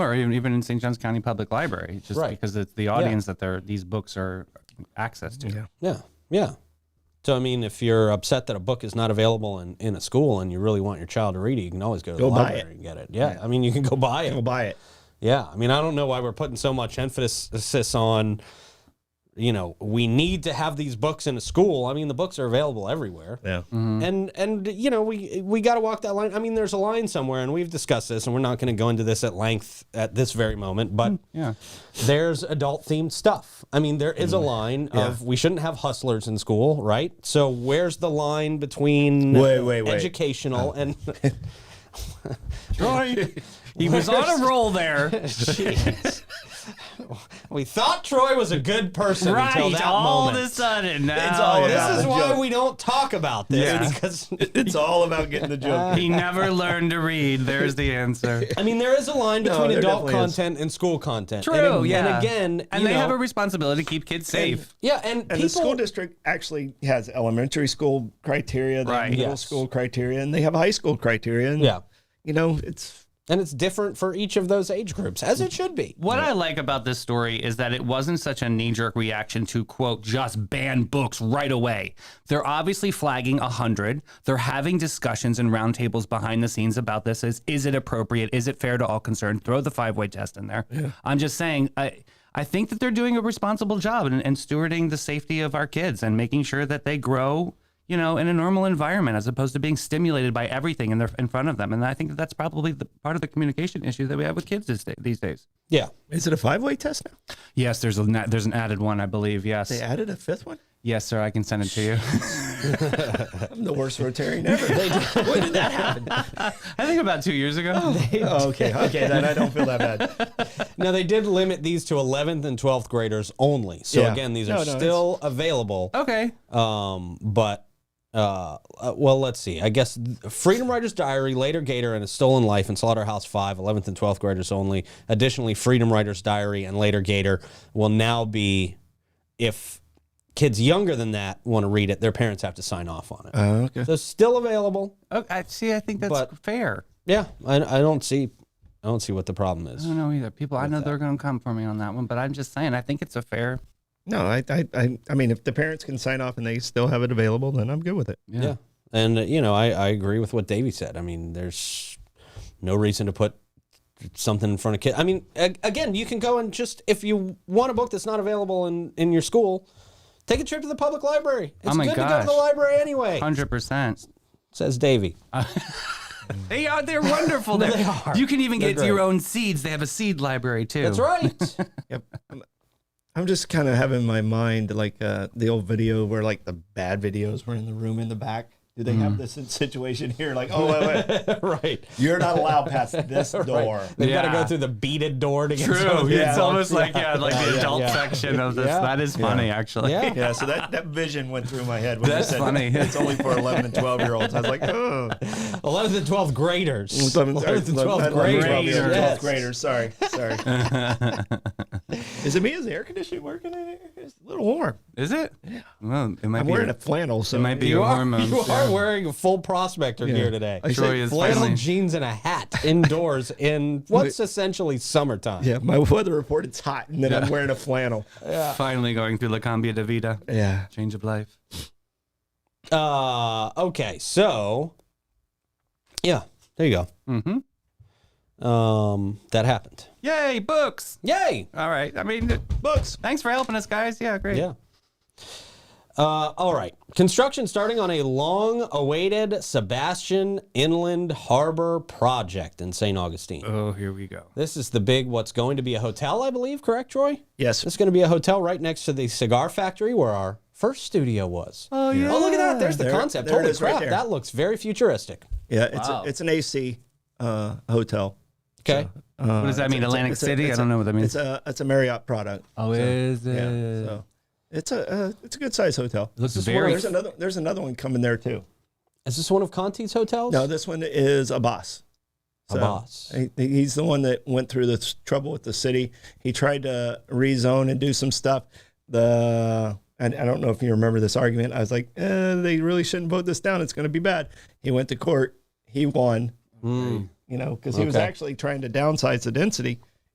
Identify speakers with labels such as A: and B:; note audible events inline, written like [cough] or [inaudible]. A: or even, even in St. John's County Public Library, just
B: Right.
A: because it's the audience that they're, these books are access to. [laughs]
C: Yeah.
B: Yeah, yeah. So I mean, if you're upset that a book is not available in, in a school and you really want your child to read it, you can always go to
C: Go
B: the
C: buy
B: library and get it. Yeah, I mean, you can go buy
C: We'll
B: it.
C: buy it.
B: Yeah, I mean, I don't know why we're putting so much emphasis on, you know, we need to have these books in a school. I mean, the books are available everywhere.
C: Yeah.
B: And and you know we we got to walk that line. I mean, there's a line somewhere, and we've discussed this, and we're not going to go into this at length at this very moment.
C: Mm,
B: But
A: Yeah.
B: there's adult themed stuff. I mean, there
C: Mm.
B: is a line of we shouldn't have hustlers in school, right? So where's the line between
C: Wait, wait, Uh. wait.
B: educational and [laughs]
A: Troy, he was on a roll
B: [laughs]
A: there.
B: Jeez. we thought Troy was a good person until
A: right.
B: that
A: All
B: moment.
A: of a sudden. Now
C: all
B: this
C: about
B: is
C: the
B: why
C: joke.
B: we don't talk about this
A: Yeah.
B: because
C: It's all about getting the joke.
A: he never learned to read. There's the
B: [laughs]
A: answer.
B: I mean there is a line between
C: there
B: adult
C: definitely is.
B: content and school content.
A: True.
B: And ag-
A: yeah.
B: And again,
A: and
B: you
A: they
B: know,
A: have a responsibility to keep kids safe.
B: yeah, and,
C: And
B: people
C: the school district actually has elementary school criteria, they have
A: Right.
C: middle
B: Yes.
C: school criteria, and they have high school criteria. And,
B: Yeah.
C: You know, it's
B: and it's different for each of those age groups as it should be.
A: What I like about this story is that it wasn't such a knee jerk reaction to, quote, just ban books right away. They're obviously flagging 100. They're having discussions and roundtables behind the scenes about this. Is, is it appropriate? Is it fair to all concerned? Throw the five way test in there. I'm just saying, I, I think that they're doing a responsible job and, and stewarding the safety of our kids and making sure that they grow. You know, in a normal environment, as opposed to being stimulated by everything in, their, in front of them, and I think that that's probably the part of the communication issue that we have with kids this day, these days.
B: Yeah.
C: is it a five way test now?
A: Yes, there's a na- there's an added one, I believe. Yes,
C: They added a fifth one.
A: yes, sir. I can send it to you. [laughs]
C: I'm the worst Rotarian ever. when did that happen?
A: I think about two years ago.
C: Oh, okay, okay, then I don't feel that bad.
B: Now they did limit these to 11th and 12th graders only. So
C: Yeah.
B: again, these
C: No,
B: are
C: no, it's-
B: still available.
A: okay.
B: Um, but uh, uh, well, let's see. I guess th- Freedom Writer's Diary, Later Gator, and A Stolen Life and Slaughterhouse Five, 11th and 12th graders only. Additionally, Freedom Writer's Diary and Later Gator will now be if kids younger than that want to read it, their parents have to sign off on it.
C: Oh, okay.
B: so still available.
A: Okay. I- See, I think that's
B: But-
A: fair.
B: Yeah, I, I don't see, I don't see what the problem is.
A: I don't know either. People, I know they're going to come for me on that one, but I'm just saying, I think it's a fair.
C: No, I, I, I, I mean, if the parents can sign off and they still have it available, then I'm good with it.
A: Yeah.
B: Yeah. And, uh, you know, I, I agree with what Davey said. I mean, there's no reason to put something in front of kids. I mean, a- again, you can go and just, if you want a book that's not available in, in your school, take a trip to the public library. It's
A: Oh my
B: good to go to the
A: gosh.
B: library anyway,
A: Hundred percent.
B: says Davey.
A: They are. They're [laughs] wonderful. there.
B: They are.
A: You can even
B: They're
A: get your
B: great.
A: own seeds. They have a seed library too.
B: That's right.
C: Yep. I'm, I'm just kind of having in my mind like uh, the old video where like the bad videos were in the room in the back. Do they have this situation here? Like, oh wait, wait,
B: right.
C: you're not allowed past this door.
B: They've got to go
A: Yeah.
B: through the beaded door to get
A: True.
B: some-
A: It's almost like yeah, like the adult
B: yeah.
A: section of this.
B: Yeah.
A: That is funny, actually.
B: Yeah.
C: Yeah, so that, that vision went through my head when
A: That's
C: you said
A: funny.
C: it's only for 11 and 12 year olds. I was like, oh.
B: 11th and 12th graders. 11th and 12th
C: 11,
B: graders.
C: 12, yeah, 12th
B: Yes.
C: graders. Sorry, sorry. is it me? Is the air conditioning working in here? It's a little warm.
A: [laughs] Is it? Yeah. Well, it might
C: I'm
A: be.
C: wearing a flannel, so
A: it might be
B: You
A: your
B: are,
A: hormones.
B: you
A: yeah.
B: are wearing a full prospector gear today.
C: I
A: Troy
C: say
A: is
B: flannel
A: finally.
B: jeans and
A: [laughs]
B: a hat indoors in what's essentially summertime.
C: Yeah, my [laughs] weather report. It's hot, and then I'm wearing a flannel.
A: Finally going through La Cambia de Vida.
C: Yeah.
A: Change of life.
B: Uh, okay, so yeah, there you
A: Mm-hmm.
B: go. Um, that happened.
A: Yay, books.
B: Yay!
A: All right. I mean,
C: Books.
A: thanks for helping us, guys. Yeah, great.
B: Yeah. Uh, all right. Construction starting on a long awaited Sebastian Inland Harbor project in St. Augustine.
A: Oh, here we go.
B: This is the big, what's going to be a hotel, I believe, correct, Troy?
C: Yes.
B: It's going to be a hotel right next to the cigar factory where our first studio was. Oh yeah! Oh look at that! There's the
C: There-
B: concept.
C: there it
B: Holy
C: is right
B: crap!
C: there.
B: that looks very futuristic.
C: Yeah, it's
A: Wow.
C: a, it's an AC uh, hotel.
B: Okay.
A: what does that mean? Atlantic
C: Uh, It's a-
A: City? I
C: it's
A: don't
C: a-
A: know what that means.
C: It's a it's a Marriott product.
A: oh, is it?
C: Yeah. So it's a uh, it's a good size hotel.
A: Looks
B: This is
A: very.
B: where
C: There's another there's another one coming there too.
B: Is this one of Conti's hotels?
C: No, this one is Abbas. So,
B: Abbas.
C: he- he's the one that went through this trouble with the city. He tried to rezone and do some stuff. The and I don't know if you remember this argument. I was like, eh, they really shouldn't vote this down. It's going to be bad. He went to court. He won. You know, because he was
B: Okay.
C: actually trying to downsize the density.